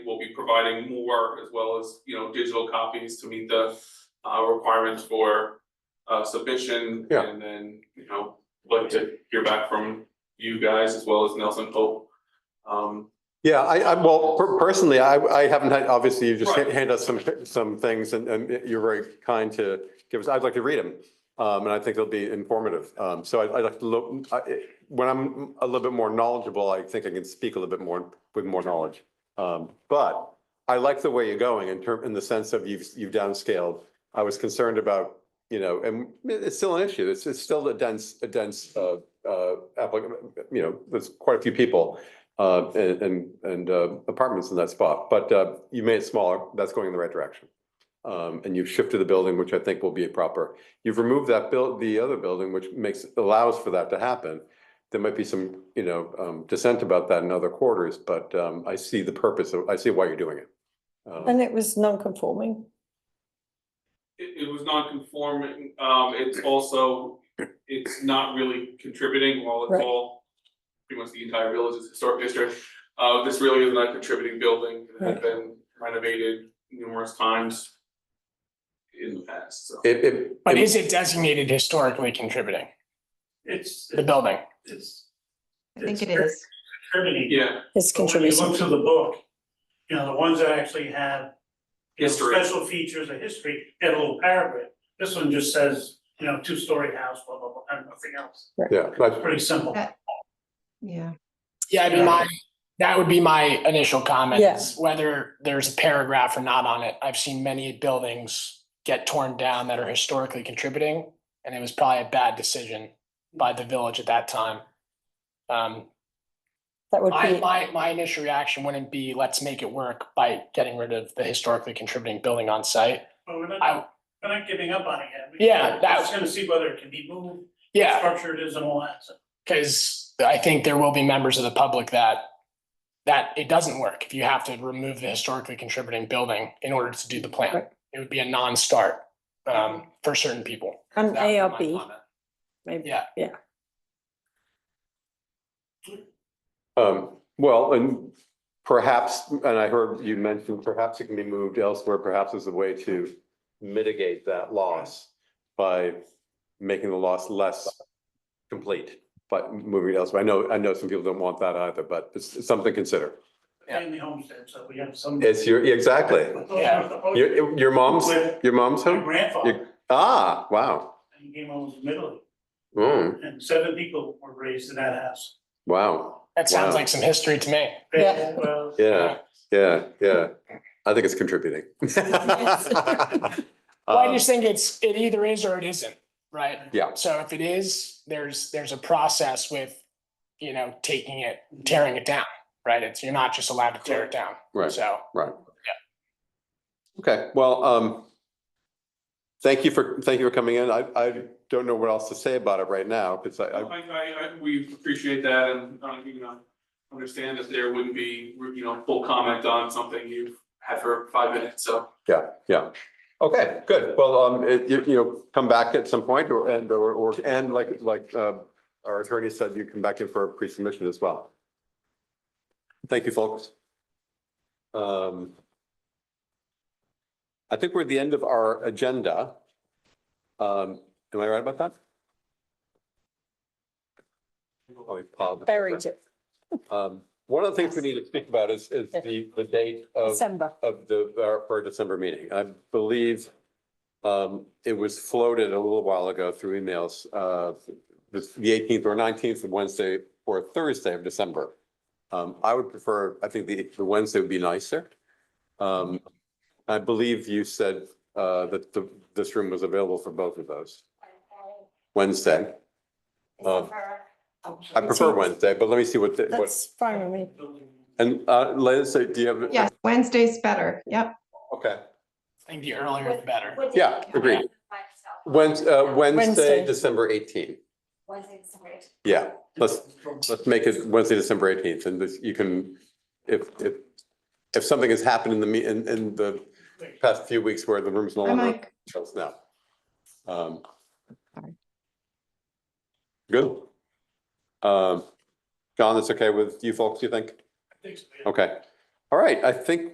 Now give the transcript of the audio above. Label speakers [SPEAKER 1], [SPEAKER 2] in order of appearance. [SPEAKER 1] providing more as well as, you know, digital copies to meet the uh requirements for uh submission.
[SPEAKER 2] Yeah.
[SPEAKER 1] And then, you know, like to hear back from you guys as well as Nelson Pope. Um,
[SPEAKER 2] Yeah, I, I, well, per- personally, I, I haven't had, obviously, you just
[SPEAKER 1] Right.
[SPEAKER 2] hand us some, some things and, and you're very kind to give us, I'd like to read them. Um, and I think they'll be informative. Um, so I'd, I'd like to look, I, when I'm a little bit more knowledgeable, I think I can speak a little bit more with more knowledge. Um, but I like the way you're going in term, in the sense of you've, you've downscaled. I was concerned about, you know, and it's still an issue. It's, it's still a dense, a dense, uh, uh, applicant, you know, there's quite a few people uh, and, and, and uh, apartments in that spot, but, uh, you made it smaller, that's going in the right direction. Um, and you've shifted the building, which I think will be proper. You've removed that build, the other building, which makes, allows for that to happen. There might be some, you know, um, dissent about that in other quarters, but, um, I see the purpose, of- I see why you're doing it. Um,
[SPEAKER 3] And it was non-conforming.
[SPEAKER 1] it it was non-conforming, um, it's also, it's not really contributing while it's
[SPEAKER 3] Right.
[SPEAKER 1] all. Pretty much the entire village is historic district, uh, this really is not a contributing building, it had
[SPEAKER 3] Right.
[SPEAKER 1] been renovated numerous times. In the past, so.
[SPEAKER 2] It, it.
[SPEAKER 4] But is it designated historically contributing,
[SPEAKER 5] It's,
[SPEAKER 4] the building?
[SPEAKER 5] it's
[SPEAKER 6] I think it
[SPEAKER 5] It's-
[SPEAKER 6] is.
[SPEAKER 5] contributing.
[SPEAKER 1] Yeah,
[SPEAKER 3] It's
[SPEAKER 5] But When you
[SPEAKER 3] contributing.
[SPEAKER 5] look through the book, you know, the ones that actually have. you know,
[SPEAKER 1] History.
[SPEAKER 5] Special features of history, they have a little paragraph. This one just says, you know, two-story house, blah, blah, blah, and nothing else.
[SPEAKER 2] Yeah, that's-
[SPEAKER 5] Pretty simple.
[SPEAKER 4] Uh,
[SPEAKER 6] That- Yeah,
[SPEAKER 4] Yeah, I mean, my, that would be my initial comment, is whether there's a paragraph or not on it. I've seen many buildings get torn down that are historically contributing, and it was probably a bad decision by the village at that time. Um,
[SPEAKER 3] That would
[SPEAKER 4] my,
[SPEAKER 3] be,
[SPEAKER 4] my, my initial reaction wouldn't be, let's make it work by getting rid of the historically contributing building on site.
[SPEAKER 5] But we're
[SPEAKER 4] I,
[SPEAKER 5] not, we're not giving up on it yet. We-
[SPEAKER 4] Yeah,
[SPEAKER 5] We're
[SPEAKER 4] that-
[SPEAKER 5] just gonna see whether it can be moved,
[SPEAKER 4] yeah,
[SPEAKER 5] structured is and all that, so.
[SPEAKER 4] Because I think there will be members of the public that, that it doesn't work if you have to remove the historically contributing building in order to do the plan.
[SPEAKER 3] Right.
[SPEAKER 4] It would be a non-start, um, for certain people.
[SPEAKER 3] an
[SPEAKER 4] That would be my
[SPEAKER 3] ARB,
[SPEAKER 4] comment.
[SPEAKER 3] maybe.
[SPEAKER 4] Yeah.
[SPEAKER 2] Um, well, and perhaps, and I heard you mention perhaps it can be moved elsewhere, perhaps as a way to mitigate that loss by making the loss less complete, but moving it elsewhere. I know, I know some people don't want that either, but it's it's something to consider.
[SPEAKER 4] Yeah.
[SPEAKER 5] And the homestead, so we have some. Oh,
[SPEAKER 2] It's your, exactly. Your, your mom's, your mom's
[SPEAKER 5] My
[SPEAKER 2] home?
[SPEAKER 5] grandfather,
[SPEAKER 2] Ah, wow.
[SPEAKER 5] he came home from Italy,
[SPEAKER 2] Mm,
[SPEAKER 5] and seven people were raised in that house.
[SPEAKER 2] wow.
[SPEAKER 4] That sounds
[SPEAKER 2] Wow. Uh,
[SPEAKER 4] like some history to me.
[SPEAKER 3] Yeah.
[SPEAKER 5] Well,
[SPEAKER 2] Yeah, yeah, yeah. I think it's contributing. Um,
[SPEAKER 4] Well, I just think it's, it either is or it isn't, right?
[SPEAKER 2] Yeah.
[SPEAKER 4] So if it is, there's, there's a process with, you know, taking it, tearing it down, right? It's, you're not just allowed to tear it down.
[SPEAKER 2] Right.
[SPEAKER 4] So.
[SPEAKER 2] Okay, well, um, thank you for, thank you for coming in. I, I don't know what else to say about it right now, because I,
[SPEAKER 1] I,
[SPEAKER 2] I,
[SPEAKER 1] I, I, we appreciate that and, uh, you know, understand that there wouldn't be, you know, full comment on something you've had for five minutes, so.
[SPEAKER 2] yeah, yeah. Okay, good. Well, um, it- you, you know, come back at some point or, and, or, or, and like, like, uh, our attorney said, you come back in for a pre-submission as well. Thank you, folks. Um, I think we're at the end of our agenda. Um, am I right about that? Oh, we paused.
[SPEAKER 3] Buried it,
[SPEAKER 2] Um, one of the things we need to speak about is, is the, the date of,
[SPEAKER 3] December.
[SPEAKER 2] of the, our- for our December meeting. I believe um, it was floated a little while ago through emails, uh, the the eighteenth or nineteenth of Wednesday or Thursday of December. Um, I would prefer, I think the, the Wednesday would be nicer. Um, I believe you said, uh, that the, this room was available for both of those. Wednesday. Uh, I prefer Wednesday, but let me see what, the- what.
[SPEAKER 3] That's fine with me.
[SPEAKER 2] And uh, Liz, uh, do you have?
[SPEAKER 6] yes, Wednesday's better, yep.
[SPEAKER 2] Okay,
[SPEAKER 4] I think the earlier the better.
[SPEAKER 2] yeah, agreed. Wednes- uh, Wednesday,
[SPEAKER 3] Wednesday.
[SPEAKER 2] December eighteenth.
[SPEAKER 7] Wednesday's great.
[SPEAKER 2] Yeah, let's, let's make it Wednesday, December eighteenth, and this, you can, if, if, if something has happened in the, me- in, in the past few weeks where the room's no
[SPEAKER 6] I'm
[SPEAKER 2] longer,
[SPEAKER 6] like,
[SPEAKER 2] let us know. Um,
[SPEAKER 6] Sorry.
[SPEAKER 2] Good. Um, John, that's okay with you folks, you think?
[SPEAKER 5] I think so, yeah.
[SPEAKER 2] Okay. All right, I think